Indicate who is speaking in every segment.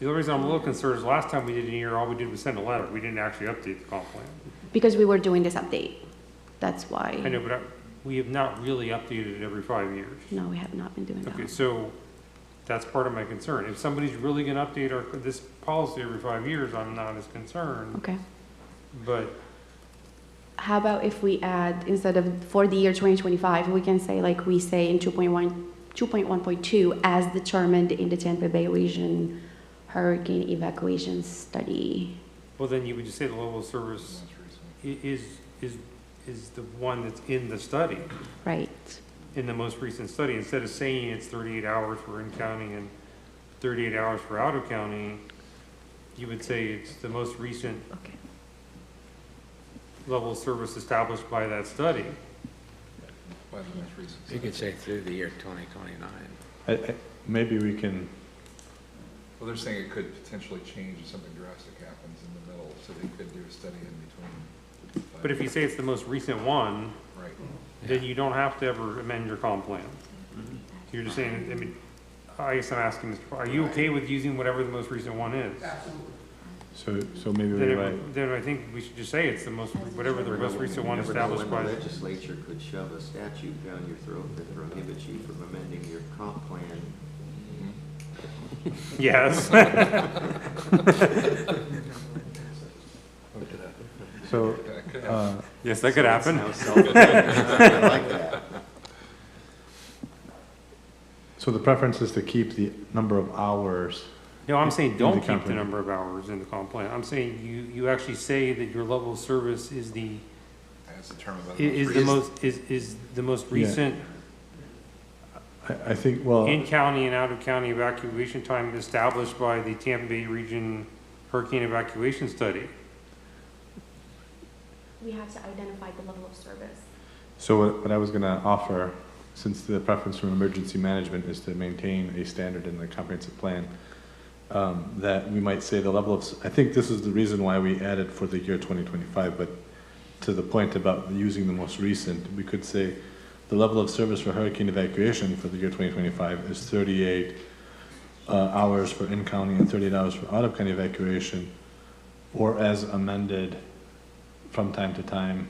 Speaker 1: The only reason I'm a little concerned is last time we did an year, all we did was send a letter. We didn't actually update the comp plan.
Speaker 2: because we were doing this update. That's
Speaker 1: I
Speaker 2: why,
Speaker 1: know, but I- we have not really updated it every five years.
Speaker 2: no, we have not been doing
Speaker 1: Okay,
Speaker 2: that.
Speaker 1: so that's part of my concern. If somebody's really gonna update our, this policy every five years, I'm not as concerned,
Speaker 2: Okay.
Speaker 1: but
Speaker 2: How about if we add, instead of for the year 2025, we can say like we say in 2.1, 2.1.2, as determined in the Tampa Bay Region Hurricane Evacuation Study.
Speaker 1: Well, then you would just say the level of service i- is, is, is the one that's in the study,
Speaker 2: Right,
Speaker 1: in the most recent study, instead of saying it's thirty-eight hours for in-county and thirty-eight hours for out-of-county, you would say it's the most recent
Speaker 2: okay.
Speaker 1: level of service established by that study.
Speaker 3: You could say through the year 2029.
Speaker 4: I- I- Maybe we can,
Speaker 5: Well, they're saying it could potentially change if something drastic happens in the middle, so they could do a study in between.
Speaker 1: But if you say it's the most recent one,
Speaker 5: Right.
Speaker 1: then you don't have to ever amend your comp plan. You're just saying, I mean, I guess I'm asking, Mr. Paul, are you okay with using whatever the most recent one is?
Speaker 4: so, so maybe
Speaker 1: Then,
Speaker 4: we write,
Speaker 1: it- then I think we should just say it's the most, whatever the most recent one
Speaker 6: Never know
Speaker 1: established
Speaker 6: When
Speaker 1: by,
Speaker 6: the legislature could shove a statute down your throat that prohibits you from amending your comp plan.
Speaker 5: Mm-hmm.
Speaker 1: yes.
Speaker 4: so, uh,
Speaker 1: Yes, that could happen.
Speaker 6: How self-evident. I like that.
Speaker 4: so the preference is to keep the number of hours.
Speaker 1: No, I'm saying don't
Speaker 4: In the
Speaker 1: keep
Speaker 4: comp
Speaker 1: the
Speaker 4: plan.
Speaker 1: number of hours in the comp plan. I'm saying you, you actually say that your level of service is the,
Speaker 5: That's the term
Speaker 1: i-
Speaker 5: about.
Speaker 1: is the most, is, is the most
Speaker 4: Yeah.
Speaker 1: recent
Speaker 4: I, I think, well,
Speaker 1: in-county and out-of-county evacuation time established by the Tampa Bay Region Hurricane Evacuation Study.
Speaker 2: We have to identify the level of service.
Speaker 4: so what, what I was gonna offer, since the preference from emergency management is to maintain a standard in the comprehensive plan, um, that we might say the level of, s- I think this is the reason why we added for the year twenty twenty-five, but to the point about using the most recent, we could say the level of service for hurricane evacuation for the year twenty twenty-five is thirty-eight uh, hours for in-county and thirty-eight hours for out-of-county evacuation, or as amended from time to time,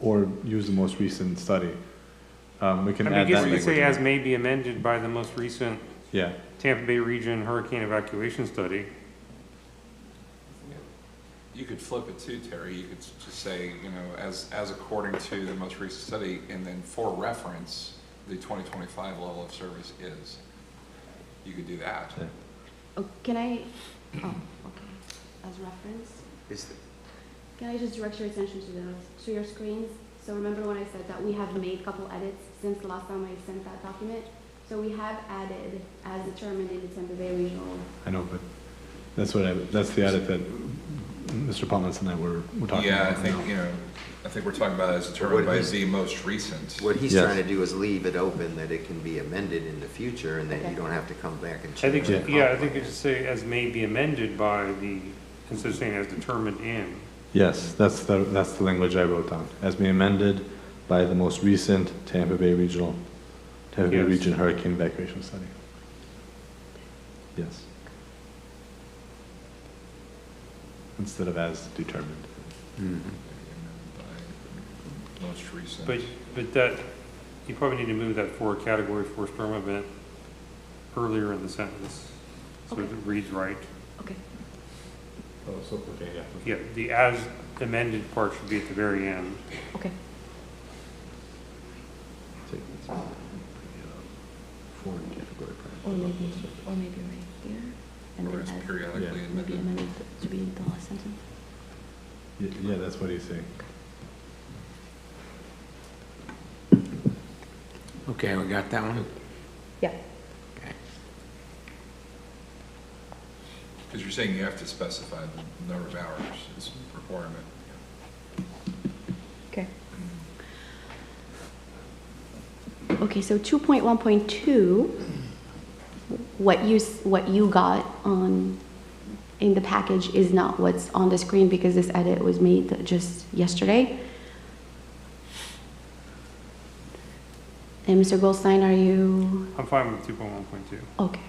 Speaker 4: or use the most recent study. Um, we
Speaker 1: I
Speaker 4: can
Speaker 1: mean,
Speaker 4: add
Speaker 1: I
Speaker 4: that.
Speaker 1: guess you could
Speaker 4: language
Speaker 1: say
Speaker 4: in.
Speaker 1: as may be amended by the most recent
Speaker 4: Yeah,
Speaker 1: Tampa Bay Region Hurricane Evacuation Study.
Speaker 3: You could flip it too, Terry. You could s- just say, you know, as, as according to the most recent study, and then for reference, the 2025 level of service is. You could do that.
Speaker 4: Yeah.
Speaker 2: Oh, can I, oh, okay, as reference?
Speaker 6: Is the-
Speaker 2: Can I just direct your attention to the, to your screens? So remember when I said that we have made a couple edits since the last time I sent that document? So we have added, as determined in the Tampa Bay Regional.
Speaker 4: I know, but that's what I, that's the edit that Mr. Palmas and I were, were talking
Speaker 5: Yeah, I
Speaker 4: about
Speaker 5: think,
Speaker 4: now.
Speaker 5: you know, I think we're talking about as determined by
Speaker 6: is-
Speaker 5: the most recent.
Speaker 6: What he's
Speaker 4: Yes.
Speaker 6: trying to do is leave it open that it can be amended in the future and that you don't have to come back and
Speaker 1: I think,
Speaker 6: change. the
Speaker 4: Yeah.
Speaker 6: comp
Speaker 1: yeah, I think you
Speaker 6: plan.
Speaker 1: should say as may be amended by the, instead of saying as determined in.
Speaker 4: Yes, that's the, that's the language I wrote down, as being amended by the most recent Tampa Bay Regional, Tampa Bay
Speaker 1: Yes.
Speaker 4: Region Hurricane Evacuation Study. Yes. Instead of as determined.
Speaker 3: Mm-hmm.
Speaker 5: By Most recent.
Speaker 1: But, but that, you probably need to move that forward category four storm event earlier in the sentence. So that it reads right.
Speaker 2: Okay.
Speaker 4: Oh, so, okay, yeah.
Speaker 1: Yeah, the as amended part should be at the very end.
Speaker 2: Okay.
Speaker 4: uh, Foreign category.
Speaker 2: Or maybe, or maybe right here. And
Speaker 5: Or
Speaker 2: then
Speaker 5: as
Speaker 2: add-
Speaker 5: periodically
Speaker 4: Yeah.
Speaker 2: maybe
Speaker 5: amended.
Speaker 2: amended to be the last sentence.
Speaker 4: Y- Yeah, that's what he's saying.
Speaker 3: Okay, we got that one?
Speaker 2: Yeah.
Speaker 3: Okay.
Speaker 5: Because you're saying you have to specify the number of hours, it's a requirement.
Speaker 2: Okay. Okay, so two point one point two, what you, s- what you got on, in the package is not what's on the screen because this edit was made just yesterday. And Mr. Goldstein, are you,
Speaker 1: I'm fine with two point one point two.
Speaker 2: okay.